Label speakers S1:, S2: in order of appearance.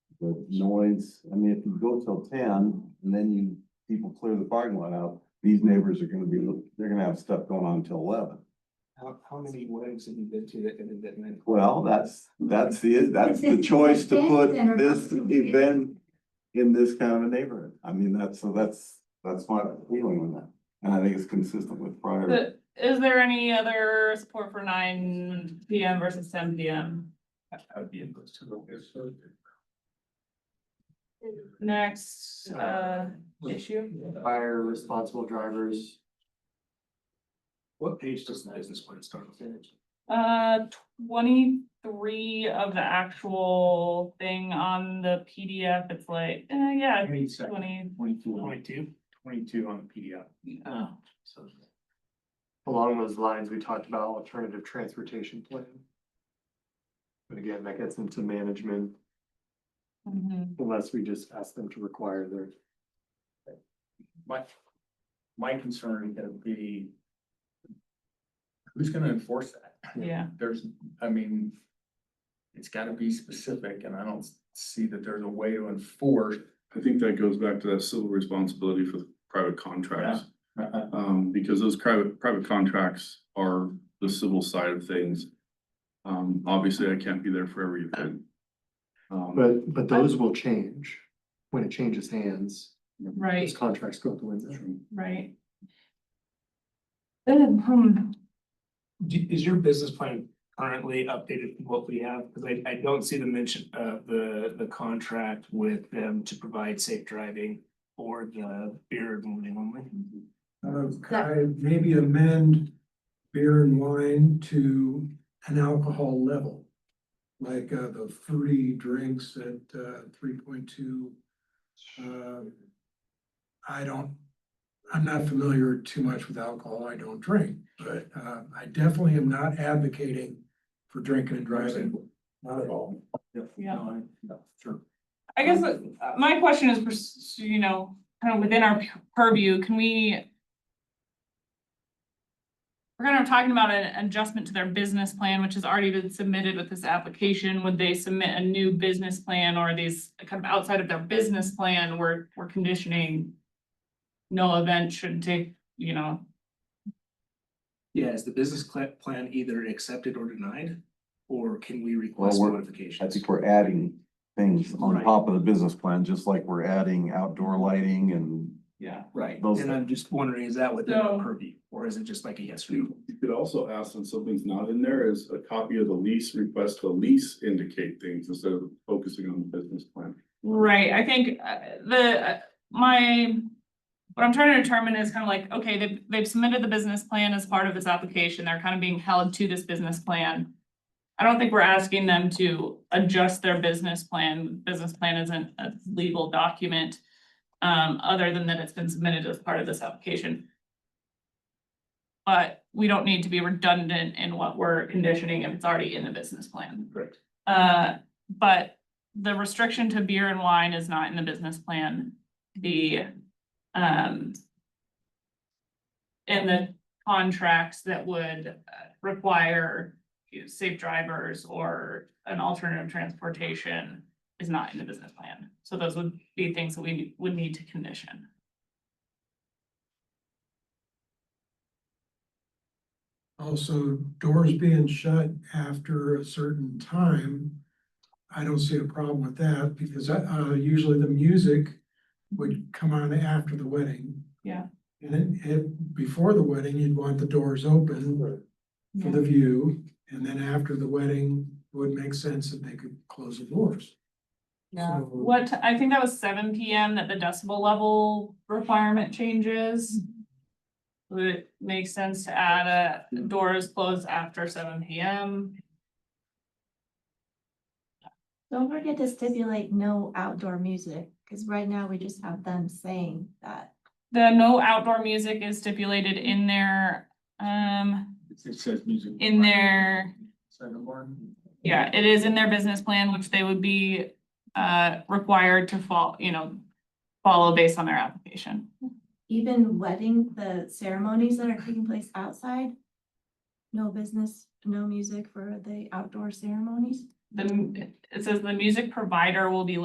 S1: the noise, I mean, if you go till ten and then you, people clear the parking lot out, these neighbors are gonna be, they're gonna have stuff going on till eleven.
S2: How, how many weddings have you been to that ended that night?
S1: Well, that's, that's the, that's the choice to put this event in this kind of a neighborhood. I mean, that's, so that's, that's my feeling with that. And I think it's consistent with prior.
S3: The- Is there any other support for nine P M versus ten P M?
S2: I would be in those two.
S3: Next, uh, issue?
S4: Fire responsible drivers.
S2: What page does the business plan start with?
S3: Uh, twenty-three of the actual thing on the PDF, it's like, uh, yeah, twenty.
S2: Twenty-two. Twenty-two? Twenty-two on the PDF.
S3: Oh,
S4: so. Along those lines, we talked about alternative transportation plan. But again, that gets into management
S3: mhm.
S4: unless we just ask them to require their.
S5: My, my concern would be. Who's gonna enforce that?
S3: yeah,
S5: There's, I mean. It's gotta be specific and I don't see that there's a way to enforce.
S6: I think that goes back to that civil responsibility for the private contracts.
S5: Uh-uh.
S6: Um, because those private, private contracts are the civil side of things. Um, obviously, I can't be there for every event. Um,
S4: But, but those will change when it changes hands.
S3: right,
S4: Those contracts go out the window.
S3: right. Uh, hmm,
S2: Do- Is your business plan currently updated from what we have? Cause I, I don't see the mention of the, the contract with them to provide safe driving or the beer and wine only.
S7: Uh, could I maybe amend beer and wine to an alcohol level? Like, uh, the fruity drinks at, uh, three point two, uh, I don't, I'm not familiar too much with alcohol, I don't drink, but, uh, I definitely am not advocating for drinking and driving, not at all.
S3: Yeah.
S5: No, I- no, Sure.
S3: I guess uh, my question is, pers- you know, kind of within our purview, can we? We're kind of talking about an adjustment to their business plan, which has already been submitted with this application. Would they submit a new business plan or are these kind of outside of their business plan We're we're conditioning? No event should take, you know,
S2: Yeah, is the business cla- plan either accepted or denied? Or can we request
S1: we're- I
S2: modifications?
S1: think we're adding things on
S2: Right.
S1: top of the business plan, just like we're adding outdoor lighting and
S2: Yeah, right.
S1: Those-
S2: And I'm just wondering, is that within
S3: So-
S2: our purview or is it just like a yes or no?
S6: You could also ask when something's not in there is a copy of the lease, request the lease indicate things instead of focusing on the business plan.
S3: Right, I think uh, the, uh, my, what I'm trying to determine is kind of like, okay, they've, they've submitted the business plan as part of this application, they're kind of being held to this business plan. I don't think we're asking them to adjust their business plan, business plan isn't a legal document. Um, other than that it's been submitted as part of this application. But we don't need to be redundant in what we're conditioning if it's already in the business plan.
S2: Correct.
S3: Uh, but the restriction to beer and wine is not in the business plan. The, um, and the contracts that would uh, require you know, safe drivers or an alternative transportation is not in the business plan. So those would be things that we would need to condition.
S7: Also, doors being shut after a certain time, I don't see a problem with that because uh, usually the music would come on after the wedding.
S3: Yeah.
S7: And it, it, before the wedding, you'd want the doors open for the view, and then after the wedding, it would make sense that they could close the doors.
S3: Yeah.
S7: So-
S3: What, I think that was seven P M that the decibel level requirement changes. Would it make sense to add a doors closed after seven P M?
S8: Don't forget to stipulate no outdoor music, because right now we just have them saying that.
S3: The no outdoor music is stipulated in their, um,
S5: It- It says music.
S3: in their,
S5: Second one.
S3: yeah, it is in their business plan, which they would be uh required to follow, you know, follow based on their application.
S8: Even wedding, the ceremonies that are taking place outside, no business, no music for the outdoor ceremonies.
S3: The, it says the music provider will be